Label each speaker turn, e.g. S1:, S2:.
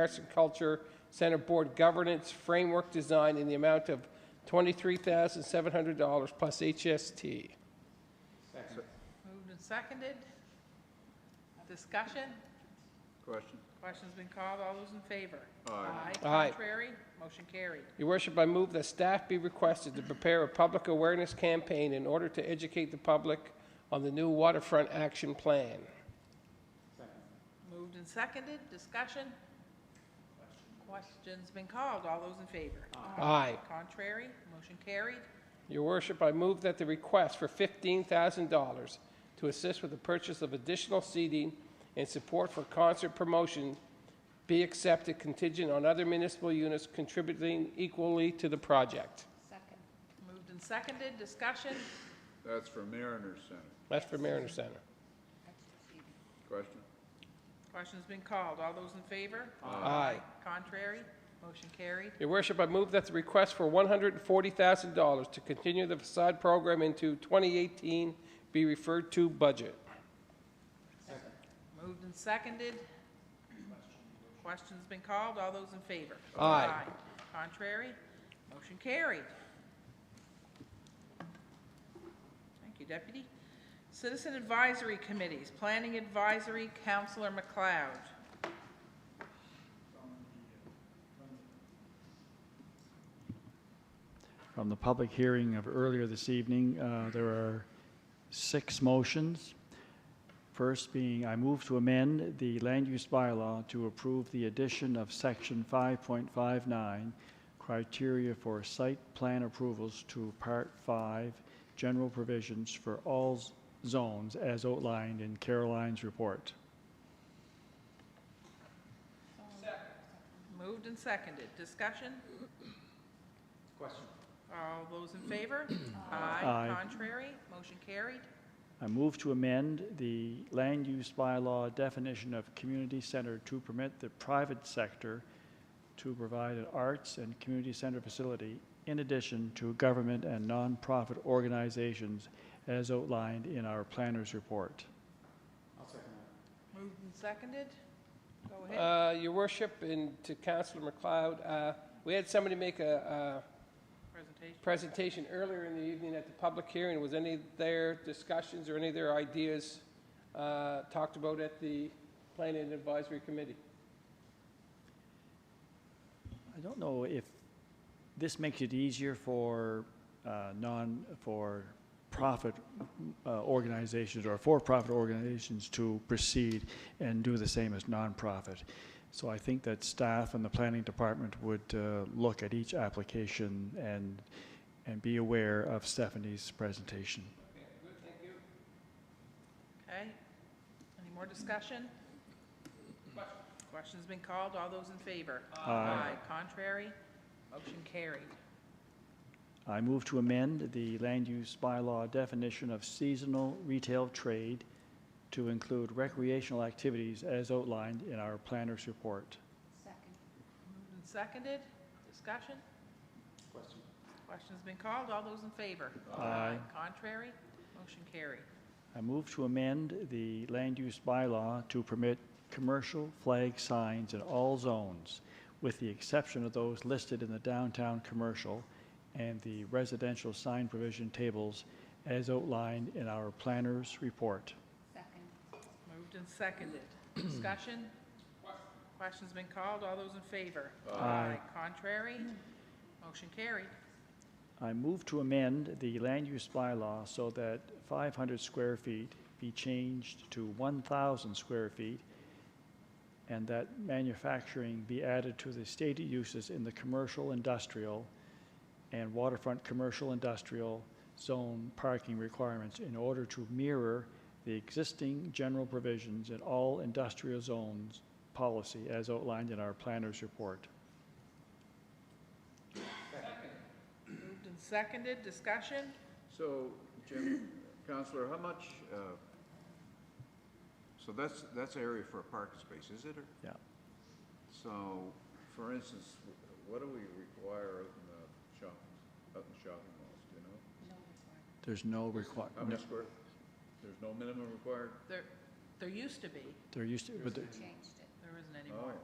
S1: Arts and Culture Center Board Governance Framework Design in the amount of $23,700 plus HST.
S2: Moved and seconded. Discussion?
S3: Question?
S2: Question's been called. All those in favor?
S3: Aye.
S1: Aye.
S2: Contrary? Motion carried.
S1: Your worship, I move that staff be requested to prepare a public awareness campaign in order to educate the public on the new waterfront action plan.
S2: Moved and seconded. Discussion? Question's been called. All those in favor?
S1: Aye.
S2: Contrary? Motion carried.
S1: Your worship, I move that the request for $15,000 to assist with the purchase of additional seating and support for concert promotion be accepted contingent on other municipal units contributing equally to the project.
S4: Second.
S2: Moved and seconded. Discussion?
S3: That's for Mariner Center.
S1: That's for Mariner Center.
S3: Question?
S2: Question's been called. All those in favor?
S1: Aye.
S2: Contrary? Motion carried.
S1: Your worship, I move that the request for $140,000 to continue the facade program into 2018 be referred to budget.
S2: Moved and seconded. Question's been called. All those in favor?
S1: Aye.
S2: Contrary? Motion carried. Thank you, Deputy. Citizen Advisory Committees, Planning Advisory, Counselor McLeod.
S5: From the public hearing of earlier this evening, uh, there are six motions. First being, I move to amend the land use bylaw to approve the addition of section 5.59, criteria for site plan approvals to Part 5, general provisions for all z- zones as outlined in Caroline's report.
S2: Moved and seconded. Discussion? Question. All those in favor? Aye.
S5: Aye.
S2: Contrary? Motion carried.
S5: I move to amend the land use bylaw definition of community center to permit the private sector to provide an arts and community center facility in addition to government and nonprofit organizations as outlined in our planner's report.
S2: Moved and seconded. Go ahead.
S1: Uh, Your worship, and to Councilor McLeod, uh, we had somebody make a uh,
S2: Presentation.
S1: a presentation earlier in the evening at the public hearing. Was any of their discussions or any of their ideas uh, talked about at the Planning Advisory Committee?
S5: I don't know if this makes it easier for uh, non, for profit uh, organizations or for-profit organizations to proceed and do the same as nonprofit. So I think that staff and the planning department would uh, look at each application and, and be aware of Stephanie's presentation.
S2: Okay. Any more discussion? Question's been called. All those in favor?
S5: Aye.
S2: Contrary? Motion carried.
S5: I move to amend the land use bylaw definition of seasonal retail trade to include recreational activities as outlined in our planner's report.
S4: Second.
S2: Moved and seconded. Discussion? Question. Question's been called. All those in favor?
S5: Aye.
S2: Contrary? Motion carried.
S5: I move to amend the land use bylaw to permit commercial flag signs in all zones, with the exception of those listed in the downtown commercial and the residential sign provision tables as outlined in our planner's report.
S4: Second.
S2: Moved and seconded. Discussion? Question's been called. All those in favor?
S5: Aye.
S2: Contrary? Motion carried.
S5: I move to amend the land use bylaw so that 500 square feet be changed to 1,000 square feet, and that manufacturing be added to the stated uses in the commercial, industrial, and waterfront commercial, industrial zone parking requirements in order to mirror the existing general provisions in all industrial zones policy as outlined in our planner's report.
S2: Moved and seconded. Discussion?
S3: So, Jim, Counselor, how much, uh, so that's, that's area for a parking space, is it? or-
S5: Yeah.
S3: So, for instance, what do we require out in the shop, out in shopping malls, do you know?
S5: There's no requirement.
S3: How many square, there's no minimum required?
S2: There, there used to be.
S5: There used to, but there-
S4: Changed it.
S2: There isn't
S3: Oh,
S2: anymore.